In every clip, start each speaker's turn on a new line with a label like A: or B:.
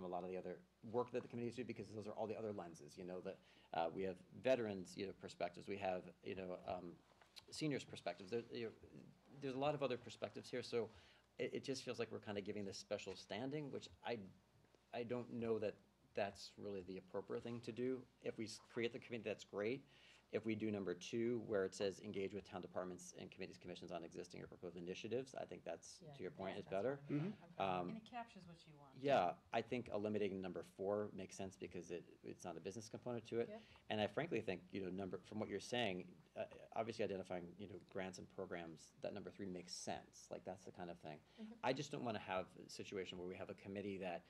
A: lot of the other work that the committees do because those are all the other lenses, you know, that, uh, we have veterans, you know, perspectives, we have, you know, um, seniors' perspectives. There, you know, there's a lot of other perspectives here, so it, it just feels like we're kind of giving this special standing, which I, I don't know that that's really the appropriate thing to do. If we s- create the committee, that's great. If we do number two, where it says engage with town departments and committees, commissions on existing or proposed initiatives, I think that's,
B: Yeah.
A: to your point, is
B: That's what
A: better.
B: I'm about. I'm fine.
A: Um,
C: And it captures what you want.
A: Yeah, I think eliminating number four makes sense because it, it's not a business component to
B: Yep.
A: it. And I frankly think, you know, number, from what you're saying, uh, obviously identifying, you know, grants and programs, that number three makes sense, like, that's the kind of thing. I just don't want to have a situation where we have a committee that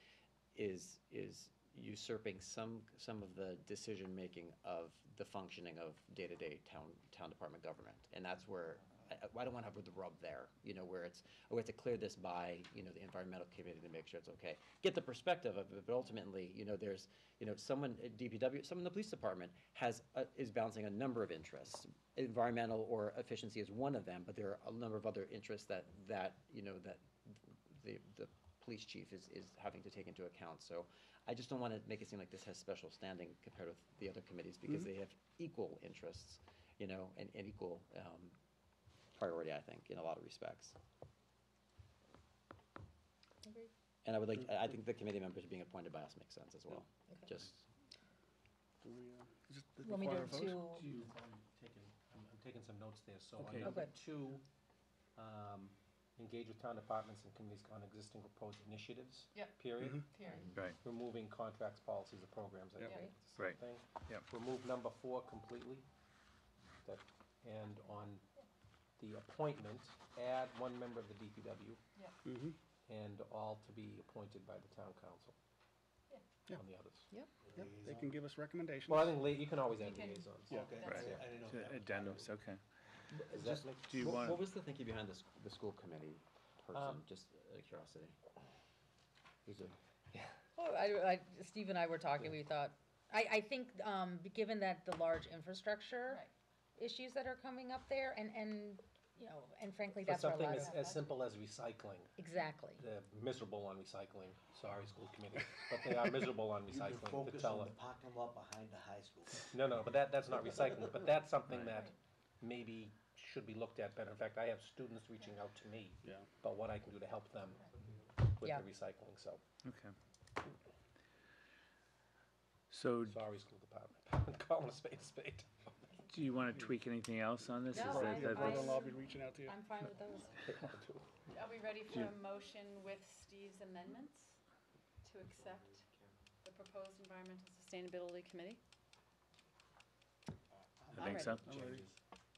A: is, is usurping some, some of the decision-making of the functioning of day-to-day town, town department government. And that's where, I, I- I don't want to have the rub there, you know, where it's, oh, we have to clear this by, you know, the environmental committee to make sure it's okay. Get the perspective of it, but ultimately, you know, there's, you know, someone at DPW, someone in the police department has, a- is balancing a number of interests. Environmental or efficiency is one of them, but there are a number of other interests that, that, you know, that the, the police chief is, is having to take into account. So I just don't want to make it seem like this has special standing compared with the other committees because they have equal interests, you know, and, and equal, um, priority, I think, in a lot of respects.
B: Agreed.
A: And I would like, I I think the committee members being appointed by us makes sense as well,
B: Okay.
A: just,
D: Do we, uh, is it
B: You want me to
D: require a vote?
B: do
E: Two, Oh, I'm taking, I'm I'm taking some notes there, so
D: Okay.
E: on number
B: Okay.
E: two, um, engage with town departments and committees on existing proposed initiatives.
C: Yep.
E: Period.
C: Period.
D: Right,
E: Removing contracts, policies, or programs, I
D: Yep.
E: think,
B: Yeah.
E: it's the same
D: Right.
E: thing.
D: yeah.
E: Remove number four completely. That, and on the appointment, add one member of the DPW
C: Yep.
D: Mm-hmm.
E: and all to be appointed by the town council
D: Yeah.
E: on the others.
B: Yep.
D: Yep, they can give us recommendations.
E: Well, I think, lia- you can always add
C: You can-
E: liaisons.
D: Yeah.
F: Okay,
C: That's
F: I-
C: it.
F: I didn't know if that was-
G: Addendums, Uh, okay.
E: Does that make-
D: Do you
A: What- What
D: want,
A: was the thinking behind this, the school committee person,
E: Um,
A: just out of curiosity? Who's it?
B: Well, Oh, I, I, Steve and I were talking, we thought, I, I think, um, given that the large infrastructure
C: Right.
B: issues that are coming up there, and, and, you know, and frankly,
E: For
B: that's where a
E: something
B: lot
E: as,
B: of,
E: as simple as recycling,
B: exactly.
E: they're miserable on recycling, sorry, school committee, but they are miserable on
F: You can
E: recycling,
F: focus on the
E: Patella.
F: parking lot behind the high school.
E: No, no, but that, that's not recycling, but that's something that maybe should be looked at better. In fact, I have students reaching out to me
D: yeah,
E: about what I can do to help them with
B: Yeah.
E: the recycling, so,
G: Okay. So do
E: sorry, school department, calling a spade a spade.
G: you want to tweak anything else on this? Is
B: No,
G: that-
B: I-
G: that-
B: I-
G: that's-
D: brother-in-law will be reaching out to you.
B: I'm fine with those.
C: Are we ready for a motion with Steve's amendments to accept the proposed Environmental Sustainability Committee?
G: I think so.
D: I'm ready.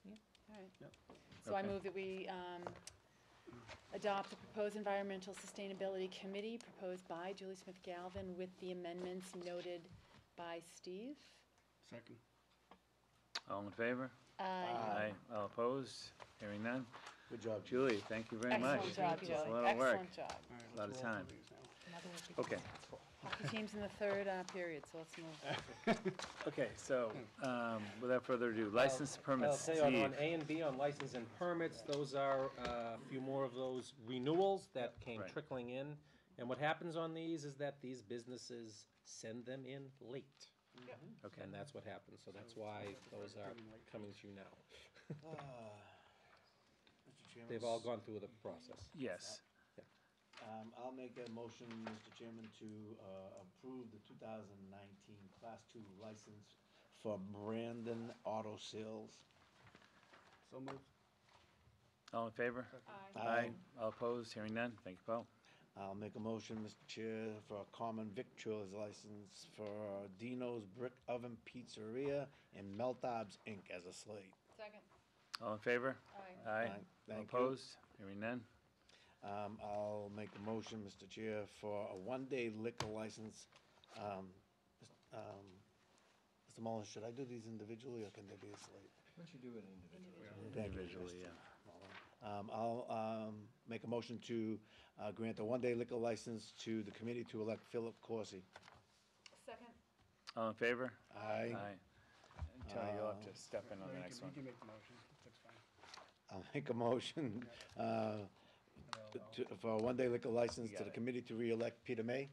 C: All right.
D: Yep.
C: So I
G: Okay.
C: move that we um, adopt the proposed Environmental Sustainability Committee proposed by Julie Smith Galvin with the amendments noted by Steve.
D: Second.
G: All in favor?
C: Uh,
G: Aye. All opposed? Hearing none?
F: Good job.
G: Julie, thank you very much.
C: Excellent job,
G: It's
C: Julie.
G: a lot of work.
C: Excellent job.
D: All right, let's
G: Lot of
D: roll through
G: time.
D: these now.
B: Another one we can-
G: Okay,
C: Hockey team's in the third uh, period, so let's move.
G: okay, so um, without further ado, license permits,
E: I'll tell you, on- on
G: Steve.
E: A and B, on license and permits, those are uh, a few more of those renewals that came
G: Right.
E: trickling in. And what happens on these is that these businesses send them in late.
A: Mm-hmm.
G: Okay.
E: And that's what happens, so that's why those are coming to you now.
F: Mr. Ah. Chairman.
E: They've all gone through the process.
G: Yes,
F: Um, I'll make a motion, Mr. Chairman, to, uh, approve the two thousand nineteen class two license for Brandon Auto Sales.
D: So moved.
G: all in favor?
C: Aye.
F: Aye.
G: All opposed? Hearing none? Thank you, Paul.
F: I'll make a motion, Mr. Chair, for a common victuals license for Dino's Brick Oven Pizzeria and Meltab's Inc. as a slate.
C: Second.
G: All in favor?
C: Aye.
G: Aye.
F: Thank
G: All
F: you.
G: opposed? Hearing none?
F: Um, I'll make a motion, Mr. Chair, for a one-day liquor license. Um, um, Mr. Mullin, should I do these individually or can they be a slate?
A: Once you do it individually.
F: Thank you,
G: Individually,
F: Mr.
G: yeah.
F: Mullin. Um, I'll, um, make a motion to, uh, grant a one-day liquor license to the committee to elect Philip Corsi.
C: Second.
G: All in favor?
F: Aye.
G: And Tony, you'll have to step in on the
D: You can-
G: next
D: You
G: one.
D: can make the motion, that's fine.
F: I'll make a motion, uh, to, for a one-day liquor license to
G: Got
F: the
G: it.
F: committee to re-elect Peter May.